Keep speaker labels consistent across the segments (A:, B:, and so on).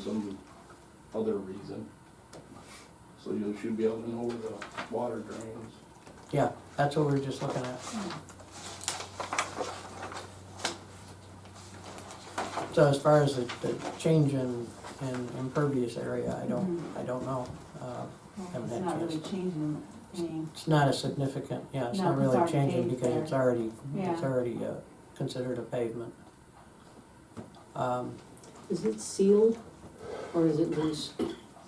A: some other reason. So you should be able to know where the water drains.
B: Yeah, that's what we were just looking at. So as far as the, the change in, in impervious area, I don't,
C: Mm-hmm.
B: I don't know. Uh, Haven't
C: It's
B: had a
C: not
B: chance.
C: really changing anything.
B: It's not a significant, yeah, it's
C: No,
B: not
C: it's
B: really
C: already
B: changing
C: paved
B: because
C: there.
B: it's already, it's
C: Yeah.
B: already uh, considered a pavement. Um,
D: Is it sealed or is it loose?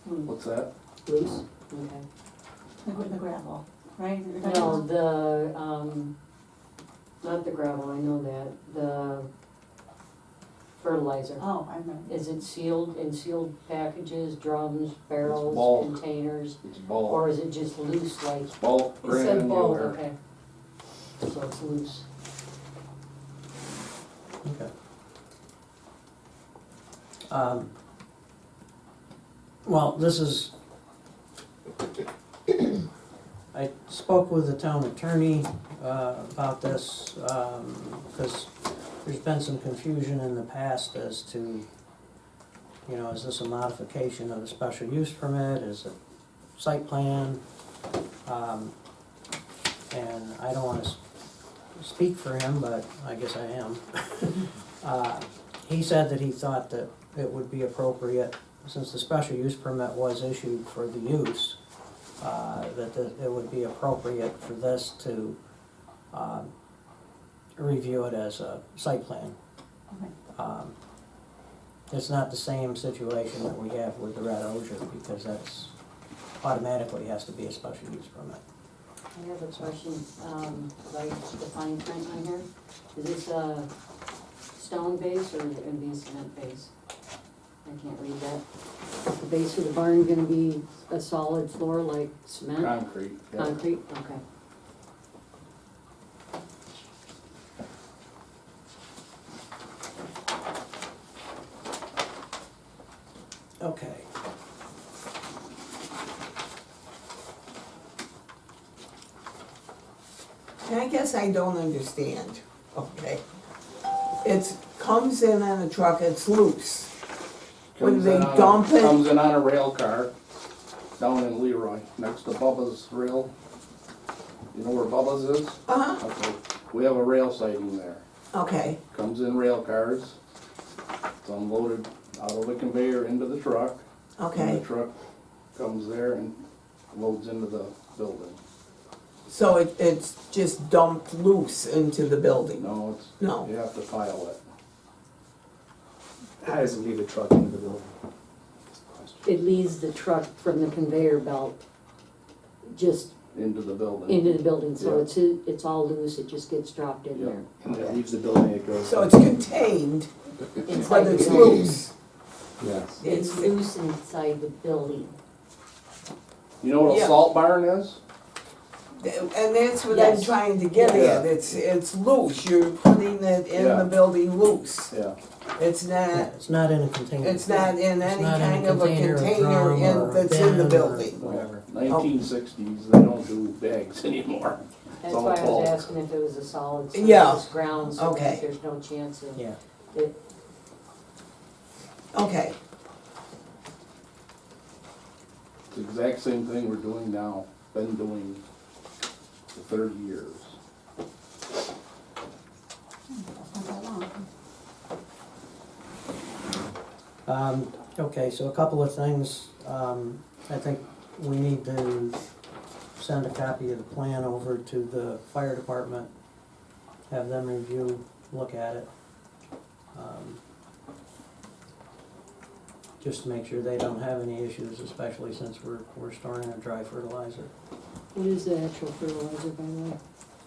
A: What's that?
D: Loose? Okay.
C: The gra- the gravel, right? You're talking
D: No,
C: about-
D: the, um, not the gravel, I know that, the fertilizer.
C: Oh, I remember.
D: Is it sealed in sealed packages, drums, barrels,
A: bulk.
D: containers?
A: It's bulk,
D: Or is it just loose like?
A: bulk
D: It said bulk,
A: granular.
D: Okay. So it's loose.
B: okay. Um, Well, this is, I spoke with the town attorney uh, about this, because there's been some confusion in the past as to, you know, is this a modification of a special use permit, is it site plan? Um, And I don't want to speak for him, but I guess I am. Uh, He said that he thought that it would be appropriate, since the special use permit was issued for the use, uh, that the- it would be appropriate for this to um, review it as a site plan.
C: Okay.
B: Um, It's not the same situation that we have with the Red Osier, because that's automatically has to be a special use permit.
D: I have a question, um, like the fine print on here. Is this a stone base or is it gonna be a cement base? I can't read that. Is the base of the barn gonna be a solid floor like cement,
A: Concrete, yeah.
D: concrete? Okay.
B: Okay.
E: And I guess I don't understand, okay? It's, comes in on a truck, it's loose. When
A: Comes
E: they
A: in on a-
E: dump it-
A: Comes in on a rail car down in Leroy, next to Bubba's rail. You know where Bubba's is?
E: Uh-huh,
A: Okay, we have a rail siding there.
E: okay,
A: Comes in rail cars. It's unloaded out of the conveyor into the truck. And
E: okay.
A: the truck comes there and loads into the building.
E: So it, it's just dumped loose into the building?
A: No, it's,
E: No.
A: you have to file it.
F: How does it leave a truck into the building?
D: It leaves the truck from the conveyor belt just
A: into the building.
D: into the building, so
A: Yeah.
D: it's, it's all loose, it just gets dropped in
A: Yeah.
D: there.
F: And it leaves the building, it goes.
E: So it's contained,
D: Inside
E: but
D: the
E: it's
D: building.
E: loose?
F: Yes.
D: It's loose inside the building.
A: You know what a
E: Yeah.
A: salt barn is?
E: And that's what I'm
D: Yes.
E: trying to get
A: Yeah.
E: at, it's, it's loose, you're putting it in
A: Yeah.
E: the building loose.
A: Yeah.
E: It's
B: Yeah,
E: not,
B: It's not in a container.
E: it's not in
B: It's
E: any
B: not in
E: kind of a
B: or
E: container
B: drum
E: in,
B: or
E: that's in
B: bin
E: the
B: or
E: building.
B: Whatever.
A: Nineteen sixties, they don't do bags anymore.
D: That's
A: all
D: why I
A: bulk.
D: was asking if it was a solid, so
E: Yeah.
D: it's ground, so
E: Okay.
D: that there's no chance of.
B: Yeah.
E: Okay,
A: It's the exact same thing we're doing now, been doing for thirty years.
C: That's not that long.
B: Um, okay, so a couple of things, um, I think we need to send a copy of the plan over to the fire department, have them review, look at it. Um, Just to make sure they don't have any issues, especially since we're, we're storing a dry fertilizer.
D: What is the actual fertilizer, by the way?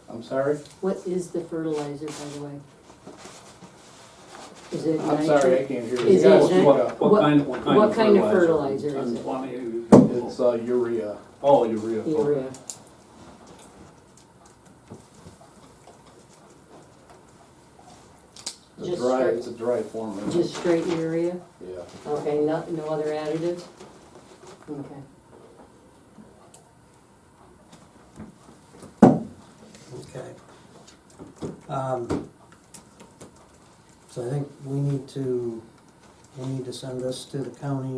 A: I'm sorry?
D: What is the fertilizer, by the way? Is it
A: I'm sorry, I
D: nitrogen?
A: can't hear
D: Is
A: you.
D: it
A: guys.
D: nit-
A: What-
D: What-
G: What kind, what kind
D: what
G: of fertilizer?
D: kind of fertilizer is
G: Tons
D: it?
G: quantity?
A: It's uh, urea.
G: Oh, urea. okay.
D: Urea.
A: It's a
D: Just
A: dry,
D: straight-
A: it's a dry form. of it.
D: Just straight urea?
A: Yeah.
D: Okay, no, no other additives? Okay.
B: Okay. Um, So I think we need to we need to send this to the county